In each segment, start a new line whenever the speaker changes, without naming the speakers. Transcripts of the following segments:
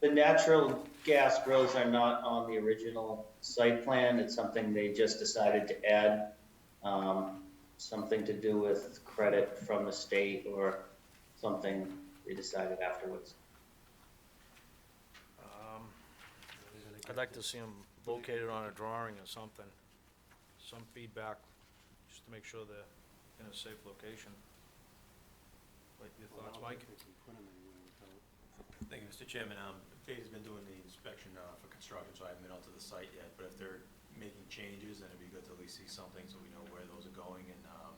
The natural gas grills are not on the original site plan. It's something they just decided to add. Um, something to do with credit from the state or something they decided afterwards.
Um, I'd like to see them located on a drawing or something, some feedback, just to make sure they're in a safe location. Like, your thoughts, Mike?
Thank you, Mr. Chairman. Um, Fade's been doing the inspection uh, for construction, so I haven't been out to the site yet, but if they're making changes, then it'd be good to at least see something so we know where those are going. And, um,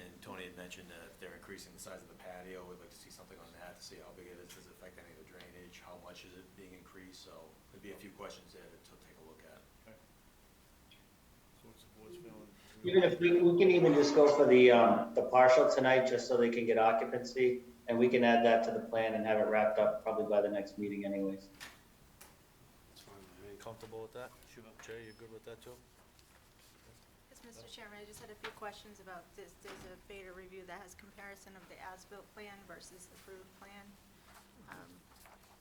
and Tony had mentioned that if they're increasing the size of the patio, we'd like to see something on that to see how big it is, does it affect any of the drainage, how much is it being increased? So there'd be a few questions there to to take a look at.
Even if, we, we can even just go for the, um, the partial tonight, just so they can get occupancy, and we can add that to the plan and have it wrapped up probably by the next meeting anyways.
Comfortable with that? Sure. Jay, you good with that too?
Yes, Mr. Chairman, I just had a few questions about this. There's a beta review that has comparison of the as-built plan versus approved plan. Um,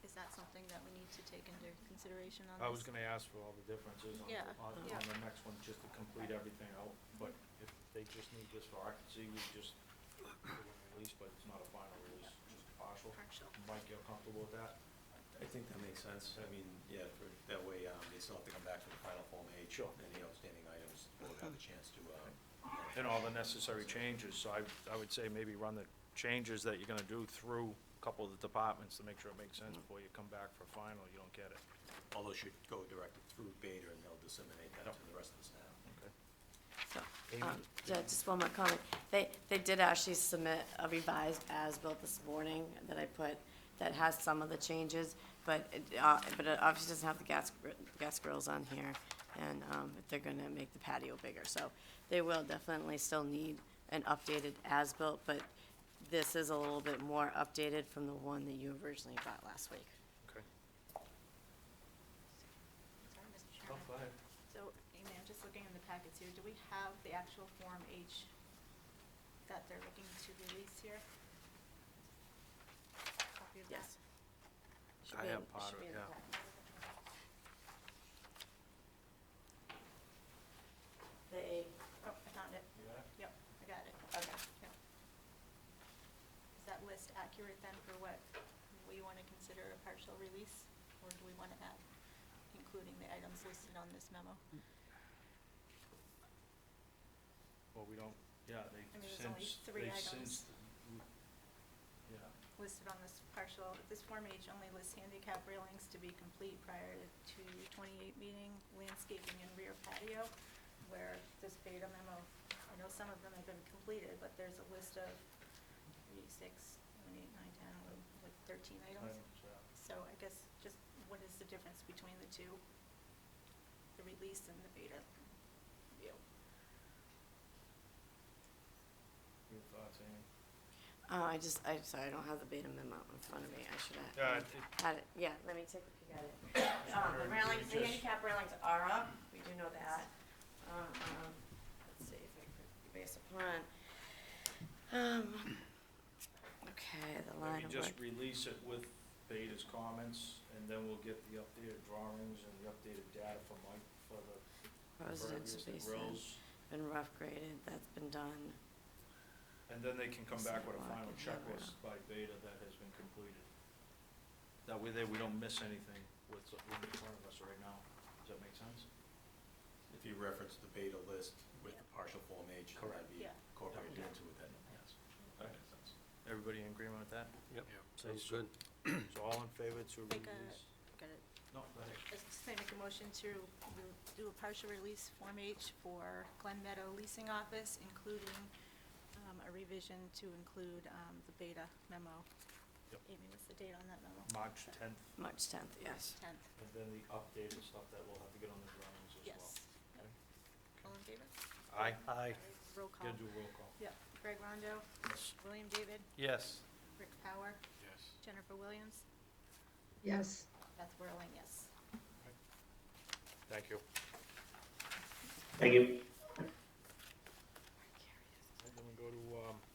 Is that something that we need to take into consideration on this?
I was gonna ask for all the differences on,
Yeah,
on, on
yeah.
the next one, just to complete everything out, but if they just need this for occupancy, we just release, but it's not a final release, just partial.
Partial.
Mike, you're comfortable with that?
I think that makes sense. I mean, yeah, for, that way, um, they still have to come back for the final Form H.
Sure.
Any outstanding items, we'll have a chance to, uh,
and all the necessary changes, so I, I would say maybe run the changes that you're gonna do through a couple of the departments to make sure it makes sense before you come back for final, you don't get it.
although should go directed through Beta and they'll disseminate that to the rest of the staff.
So,
Amy?
um, yeah, just one more comment. They, they did actually submit a revised as-built this morning that I put, that has some of the changes, but it, uh, but it obviously doesn't have the gas, gr- gas grills on here, and, um, they're gonna make the patio bigger, so they will definitely still need an updated as-built, but this is a little bit more updated from the one that you originally got last week.
Okay.
Sorry, Mr.
Oh,
Chairman. So, Amy, I'm just looking in the packets here. Do we have the actual Form H that they're looking to release here? Copy of that?
Yes. Should
I
be in-
have part
should
of it,
be in the
yeah.
packet. They,
Oh, I found it. Yep, I got it. Okay. Yep. Is that list accurate then for what we want to consider a partial release? Or do we want to add, including the items listed on this memo?
Well, we don't, yeah, they
I mean, there's only
since,
three
they
items.
since. Yeah,
Listed on this partial, this Form H only lists handicap railings to be complete prior to 28 meeting, landscaping and rear patio, where this beta memo, I know some of them have been completed, but there's a list of three, six, seven, eight, nine, 10, eleven, like 13
items,
items.
yeah.
So I guess just what is the difference between the two? The release and the beta view?
Your thoughts, Amy?
oh, I just, I'm sorry, I don't have the beta memo in front of me, I should have.
Yeah, it-
Had it, yeah, let me take a peek at it. Um, the railings, the
Just-
handicap railings are up, we do know that. Um, let's see if I could, based upon, um, okay, the line
Maybe
of
just
work.
release it with Beta's comments, and then we'll get the updated drawings and the updated data from Mike for the
Residence
impervious, the
basement,
grills.
been rough graded, that's been done.
And then they can come back with a
Sidewalk
final
and
checklist by Beta that has been completed. That way there, we don't miss anything with what's in front of us right now. Does that make sense?
If you reference the Beta list with the partial Form H, that'd be
Yeah.
incorporated into it then, yes. That makes sense.
Everybody in agreement with that?
Yep,
So
sounds
it's-
good.
So all in favor to
Make a-
release?
Got it.
No, go ahead.
I was just gonna make a motion to re- do a partial release Form H for Glen Meadow Leasing Office, including um, a revision to include um, the beta memo.
Yep.
Amy, what's the date on that memo?
March tenth,
March tenth, yes.
Tenth,
and then the updated stuff that we'll have to get on the drawings as well.
yes. Yep. All in favor?
Aye.
Aye.
Roll call.
Gotta do roll call.
Yep. Greg Rondo,
Yes.
William David,
Yes.
Rick Power,
Yes.
Jennifer Williams,
Yes.
Beth Whirling, yes.
Thank you.
Thank you.
And then we go to, um,